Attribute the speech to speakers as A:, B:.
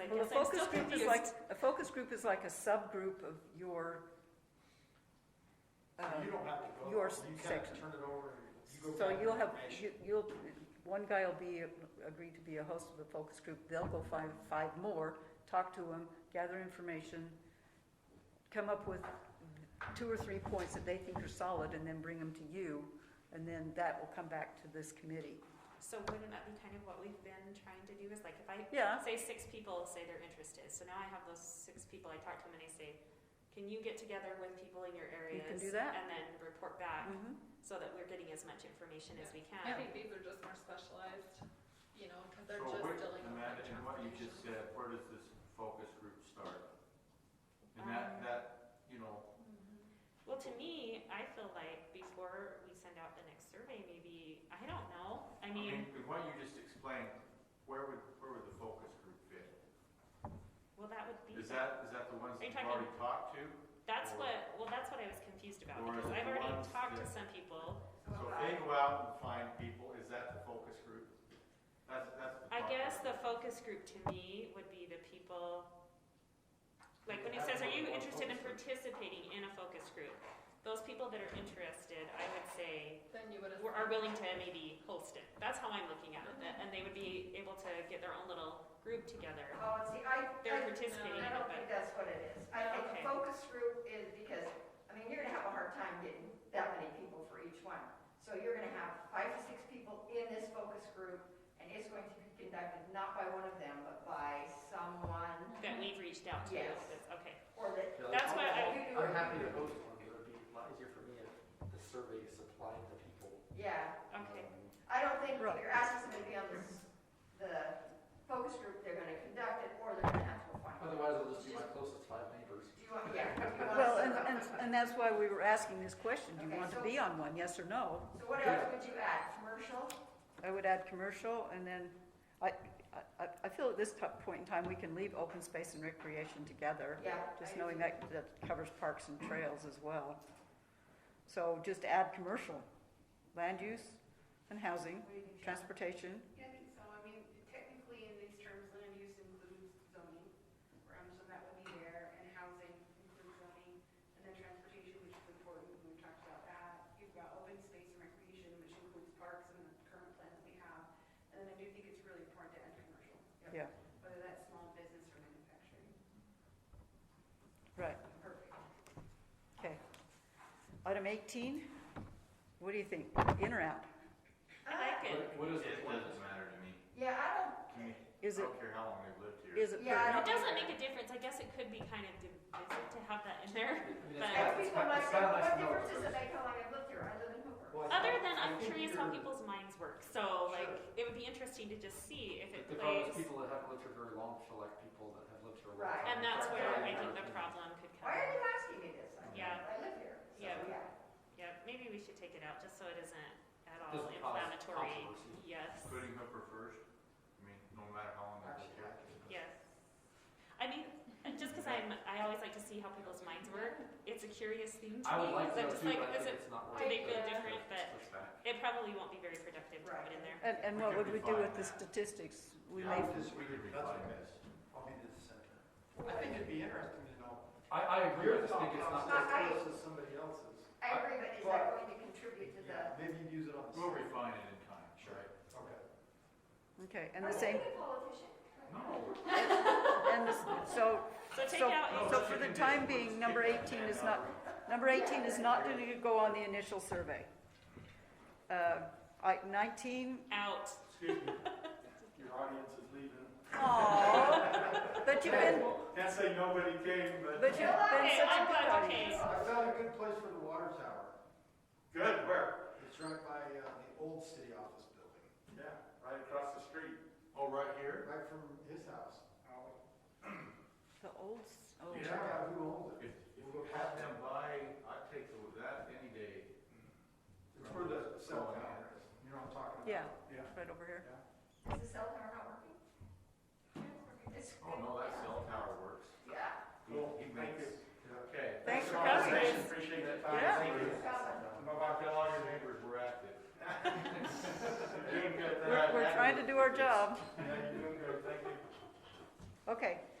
A: I
B: Well, a
A: guess I'm
B: focus
A: still
B: group is like,
A: confused.
B: a focus group is like a subgroup of your, um,
C: You don't have to go.
B: your
C: You kind of
B: section.
C: turn it over. you go
B: So
C: grab
B: you'll have,
C: information.
B: you- you'll, one guy will be, agreed to be a host of the focus group, they'll go find five more, talk to them, gather information, come up with two or three points that they think are solid, and then bring them to you, and then that will come back to this committee.
A: So wouldn't that be kind of what we've been trying to do is like if I
B: Yeah,
A: say six people say their interest is, so now I have those six people, I talk to them and I say, can you get together with people in your areas?
B: do that.
A: And then report back
B: mhm.
A: so that we're getting as much information as we
D: I
A: can.
D: think these are just more specialized, you know, because they're
E: So
D: just
E: where-
D: dealing
E: and
D: with.
E: that-
D: like
E: And what you
D: transportation.
E: just said, where does this focus group start? And that,
A: Um,
E: that, you know,
D: Mhm.
A: Well, to me, I feel like before we send out the next survey, maybe, I don't know, I
E: I
A: mean,
E: mean, with what you just explained, where would, where would the focus group fit?
A: well, that would be.
E: Is that, is that the ones
A: Are
E: that
A: you
E: you've already talked to?
A: That's
E: Or-
A: what, well, that's what I was confused about,
E: Or is
A: because
E: it
A: I've
E: the
A: already
E: ones
A: talked to
E: that-
A: some people.
E: So if they go out and find people, is that the focus group? That's, that's the.
A: I
E: thought
A: guess the
E: process.
A: focus group to me would be the people, like when it
E: Have
A: says, are
E: more
A: you
E: than one
A: interested in
E: focus
A: participating in a focus group? Those people that are interested, I would say,
D: Then you would have.
A: were- are willing to maybe host it. That's how I'm looking at it, that- and they would be able to get their own little group together.
F: Oh, see, I,
A: They're
F: I,
A: participating in it,
F: I don't think
A: but,
F: that's what it is. I think
A: Okay.
F: the focus group is because, I mean, you're gonna have a hard time getting that many people for each one. So you're gonna have five to six people in this focus group, and it's going to be conducted not by one of them, but by someone,
A: that we've reached out to.
F: Yes.
A: That's- Okay,
F: or that
A: that's what I,
F: you do.
G: I'm happy to host one, it would be a lot easier for me if the survey supplied the people.
F: Yeah,
A: okay.
F: I don't think
B: Right.
F: your ass is gonna be on this, the focus group, they're gonna conduct it, or they're gonna have to find.
G: Otherwise, I'll just do my closest five neighbors.
F: Do you want, yeah, do you want?
B: Well,
F: to-
B: and, and, and that's why we were asking this question, do you
F: Okay,
B: want to
F: so-
B: be on one, yes or no?
F: So what else would you add? Commercial?
B: I would add commercial, and then, I, I, I feel at this to- point in time, we can leave open space and recreation together,
F: Yeah.
B: just
F: I-
B: knowing that, that covers parks and trails as well. So just add commercial, land use and housing,
F: What do you think, Sharon?
B: transportation,
H: Yeah, I think so. I mean, technically in these terms, land use includes zoning, um, so that would be there, and housing includes zoning, and then transportation, which is important, we talked about that. You've got open space and recreation, which includes parks and the current plan that we have, and then I do think it's really important to add commercial. Yep.
B: Yeah.
H: Whether that's small business or manufacturing.
B: right,
H: Perfect.
B: okay. Item eighteen, what do you think, in or out?
A: I
F: Ah.
A: like it.
G: What- What is the
E: It
G: point?
E: doesn't matter to me.
F: Yeah, I don't,
E: To me, I
B: Is it,
E: don't care how long they've lived here.
B: is it?
F: Yeah, I
A: It
F: don't-
A: doesn't make a difference. I guess it could be kind of divisive to have that in there.
G: I mean,
A: But-
G: it's not-
F: and
G: it's
F: people
G: not-
F: might
G: it's
F: say,
G: not nice
F: what
G: to know
F: difference does it
G: first.
F: make how long I've lived here? I live in Hoover.
G: Well, I
A: Other
G: thought-
A: than
G: I
A: I'm
G: think
A: curious how
G: you're-
A: people's minds work, so like,
G: Sure.
A: it would be interesting to just see if it
G: The problem is
A: plays.
G: people that haven't lived here very long feel like people that have lived here a long
F: Right.
G: time.
A: And that's
G: feel
A: where
G: like
A: I
G: they're
A: think the
G: better.
A: problem could
F: Why are
A: come.
F: you asking me this? I mean,
A: Yeah.
F: I live here. so,
A: Yeah.
F: Yeah.
A: Yeah, maybe we should take it out, just so it isn't at all
G: Doesn't cause
A: inflammatory.
G: controversy.
A: Yes,
E: Putting Hooper first, I mean, no matter how long they've lived here.
A: yes. I mean, just because I'm, I always like to see how people's minds work, it's a curious thing to me.
G: I would like
A: 'cause
G: to
A: I'm
G: know
A: just
G: too,
A: like,
G: but I
A: is
G: think
A: it-
G: it's not
A: do
G: worth
A: they
G: it.
A: feel different, but
E: That's fact.
A: it probably won't be very productive to put in there.
B: And, and
E: We
B: what
E: could
B: would we do
E: refine
B: with the
E: that.
B: statistics? We
E: Yeah,
B: may,
E: we just- we could refine this.
C: I'll be the center. I think it'd be interesting to know.
G: I, I agree, I just think it's not
C: It's
G: worth
F: not-
G: it.
C: as close as somebody else's.
F: I agree, but is that
C: But-
F: going to contribute to the?
C: Yeah, maybe you'd use it on the.
E: We'll
C: side.
E: refine it in time,
C: Sure.
E: right?
C: Okay.
B: okay, and the same,
F: Are you a politician?
E: No.
B: and the, s- so
A: So take
B: So-
A: out,
B: so for the time being, number 18 is not, number 18 is not going to go on the initial survey. Uh, I- 19,
A: out.
C: Excuse me. Your audience is leaving.
B: aww, but you've been,
C: Can't say nobody came, but.
B: but you've been
A: Okay,
B: such a
A: I'm
B: good
A: glad, okay.
B: audience.
C: I found a good place for the water tower.
E: Good, where?
C: It's right by, uh, the old city office building,
E: Yeah, right across the street. Oh, right here?
C: right from his house. Oh.
B: The old, s- oh,
C: Check out who owns
E: If,
C: it.
E: if we have them by, I'd take the- that any day.
C: It's where the cell tower is. You know what I'm talking about?
B: yeah,
C: Yeah.
B: right over here.
F: Is the cell tower not working? It's.
E: Oh, no, that cell tower works.
F: Yeah.
E: Cool, he makes, okay.
B: Thanks for
E: the
B: coming.
E: conversation. Appreciate that time.
B: Yeah.
E: Thank you. I
F: Awesome.
E: don't know about how long your neighbors were active. You're Doing good.
B: We're, we're trying to do our job.
E: Yeah, you're doing good, thank you.
B: Okay,